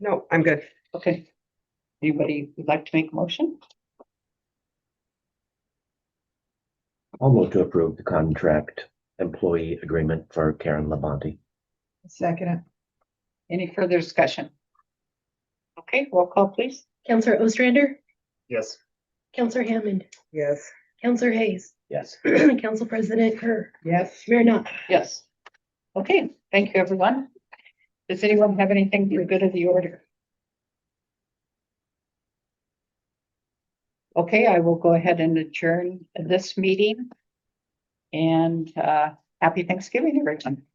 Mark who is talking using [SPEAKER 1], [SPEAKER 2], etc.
[SPEAKER 1] No, I'm good.
[SPEAKER 2] Okay. Anybody would like to make a motion?
[SPEAKER 3] I'll move to approve the contract employee agreement for Karen Labonte.
[SPEAKER 2] Second. Any further discussion? Okay, roll call please.
[SPEAKER 4] Counselor Ostrander,
[SPEAKER 5] Yes.
[SPEAKER 4] Counselor Hammond,
[SPEAKER 1] Yes.
[SPEAKER 4] Counselor Hayes,
[SPEAKER 3] Yes.
[SPEAKER 4] Council President Kerr,
[SPEAKER 2] Yes.
[SPEAKER 4] Mayor Knopf.
[SPEAKER 2] Yes. Okay, thank you, everyone. Does anyone have anything for good of the order? Okay, I will go ahead and adjourn this meeting. And uh, happy Thanksgiving, everyone.